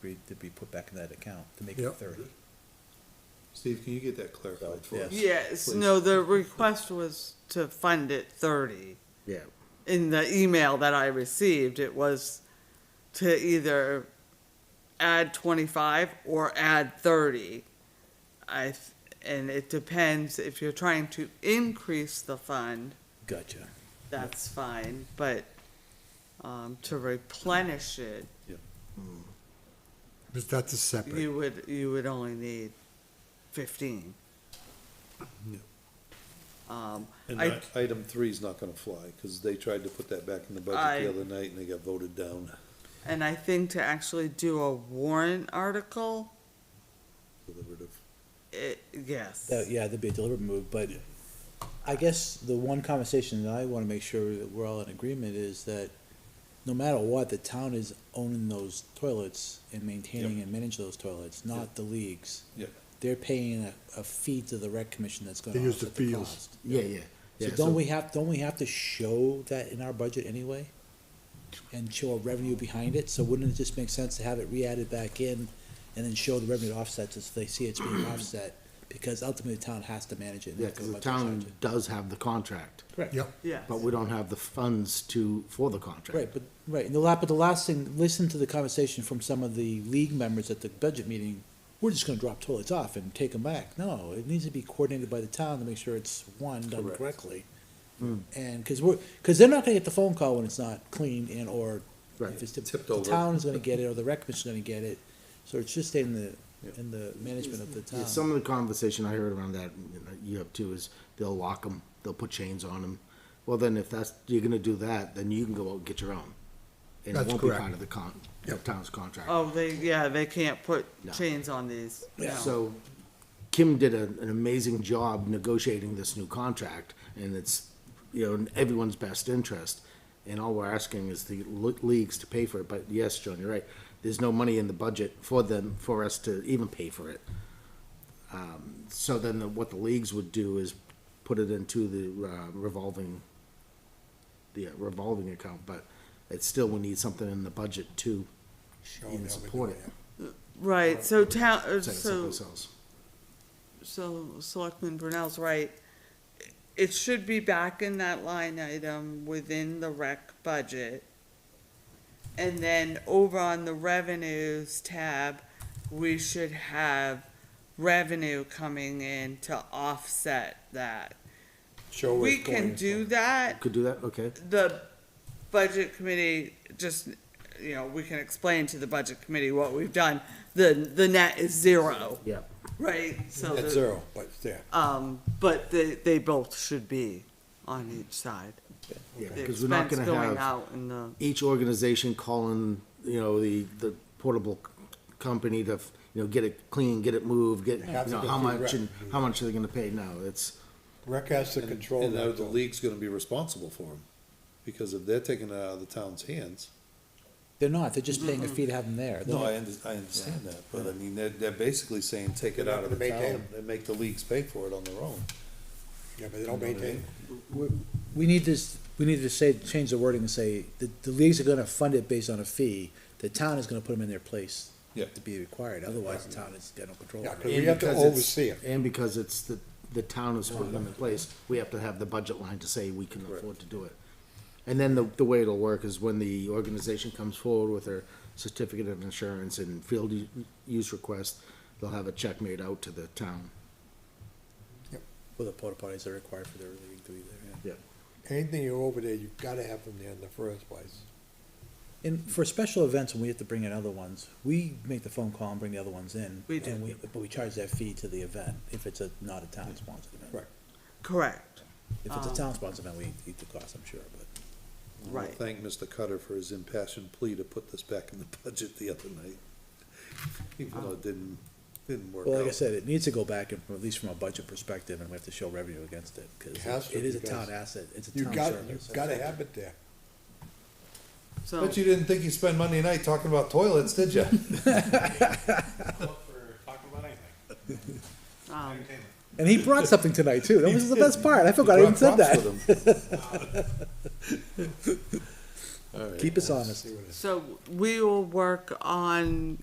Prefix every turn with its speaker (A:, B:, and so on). A: agreed to be put back in that account to make it
B: Yep.
A: thirty.
C: Steve, can you get that clarified for us?
A: Yes.
D: Yes, no, the request was to fund it thirty.
E: Yeah.
D: In the email that I received, it was to either add twenty-five or add thirty. I, th- and it depends, if you're trying to increase the fund,
A: Gotcha.
D: that's fine, but, um, to replenish it,
B: But that's a separate,
D: you would, you would only need fifteen.
C: Yeah.
D: Um,
C: And
D: I-
C: i- item three is not gonna fly, cause they tried to put that back in the
D: I-
C: budget the other night and they got voted down.
D: And I think to actually do a warrant article,
C: Deliberative.
D: it, yes.
A: That, yeah, that'd be a deliberate move, but I guess the one conversation that I wanna make sure that we're all in agreement is that no matter what, the town is owning those toilets and maintaining and managing those toilets, not the leagues.
C: Yep.
A: They're paying a, a fee to the rec commission that's gonna
B: They use the
A: offset the
B: fields.
A: cost.
E: Yeah, yeah.
A: So
E: yeah,
A: don't we have, don't we have to show that in our budget anyway? And show a revenue behind it, so wouldn't it just make sense to have it re-added back in and then show the revenue offsets as they see it's being offset? Because ultimately the town has to manage it. and
E: Yeah,
A: not go
E: because the
A: budget charge
E: town
A: it.
E: does have the contract,
A: Correct.
B: yep,
D: Yes.
E: but we don't have the funds to, for the contract.
A: Right, but, right, and the la, but the last thing, listen to the conversation from some of the league members at the budget meeting. We're just gonna drop toilets off and take them back. No, it needs to be coordinated by the town to make sure it's, one, done
C: Correct. Hmm.
A: correctly. And, cause we're, cause they're not gonna get the phone call when it's not clean and or if
E: Right.
A: it's tipped,
C: Tipped
A: the
C: over.
A: town is gonna get it or the rec commission's gonna get it. So it's just in the,
C: Yeah.
A: in the management of the
E: Yeah, some
A: town.
E: of the conversation I heard around that, you know, you have too, is they'll lock them, they'll put chains on them. Well, then if that's, you're gonna do that, then you can go out and get your own. And it
B: That's
E: won't be
B: correct.
E: part of the con, the
B: Yep.
E: town's contract.
D: Oh, they, yeah, they can't put
E: No.
D: chains on these.
A: Yeah.
D: No.
E: So Kim did a- an amazing job negotiating this new contract, and it's, you know, in everyone's best interest. And all we're asking is the le- leagues to pay for it, but yes, John, you're right. There's no money in the budget for them, for us to even pay for it. Um, So then the- what the leagues would do is put it into the uh, revolving, the uh, revolving account, but it's still, we need something in the budget to even support it.
D: Right, so town, uh,
E: set us up
D: so,
E: ourselves.
D: so Selectman Brunel's right. It should be back in that line item within the rec budget. And then over on the revenues tab, we should have revenue coming in to offset that.
F: Show where
D: We
F: it's going.
D: can do that.
E: Could do that, okay?
D: the budget committee just, you know, we can explain to the budget committee what we've done. The, the net is zero,
E: Yeah.
D: right? So,
F: At
D: the-
F: zero, but it's there.
D: um, but they, they both should be on each side.
E: Yeah,
D: The
E: because we're not
D: expense
E: gonna
D: going
E: have
D: out in the,
E: each organization calling, you know, the, the portable c- company to, you know, get it clean, get it moved, get, you
F: Have to
E: know,
F: go
E: how
F: through
E: much
F: rec.
E: and how much are they gonna pay? No, it's,
F: Rec has to
C: And-
F: control
C: And now
F: that.
C: the
F: though.
C: league's gonna be responsible for them, because if they're taking it out of the town's hands.
A: They're not, they're just
E: Mm-hmm.
A: paying a fee to have them there. They're
C: No,
A: not-
C: I under, I understand that, but I mean, they're, they're basically saying, take it
F: They're
C: out
F: not
C: of the
F: gonna maintain
C: town and make the leagues pay for it on their own.
F: Yeah, but they don't maintain.
A: We need this, we need to say, change the wording and say, the, the leagues are gonna fund it based on a fee, the town is gonna put them in their place.
C: Yeah.
A: To be required, otherose the town is gonna control
F: Yeah,
A: it.
F: We
E: and
F: have to
E: because it's-
F: oversee it.
E: And because it's the, the town is putting them in place, we have to have the budget line to say we can afford to do it. And then the, the way it'll work is when the organization comes forward with their certificate of insurance and field u- use request, they'll have a check made out to the town.
A: Well, the porta potties are required for their league to be there, yeah.
E: Yeah.
F: Anything you're over there, you've gotta have them there in the first place.
A: And for special events, when we have to bring in other ones, we make the phone call and bring the other ones in.
D: We do.
A: and But we charge that fee to the event, if it's a, not a town-sponsored event.
F: Correct.
D: correct,
A: If it's a
D: Um,
A: town-sponsored event, we eat the cost, I'm sure, but.
C: We'll
D: right.
C: Thank Mr. Cutter for his impassioned plea to put this back in the budget the other night. Even though it didn't, didn't work out.
A: Well, like I said, it needs to go back and, at least from a budget perspective, and we have to show revenue against it, cause
F: It has to,
A: it is a
F: because
A: town asset, it's a
F: You
A: town
F: got,
A: service.
F: you've gotta have it there.
D: so,
C: Bet you didn't think you spent Monday night talking about toilets, did you?
G: for talking about anything.
D: um,
A: And he brought something tonight too. That was the best part. I forgot I even said that. Keep us honest.
D: so we will work on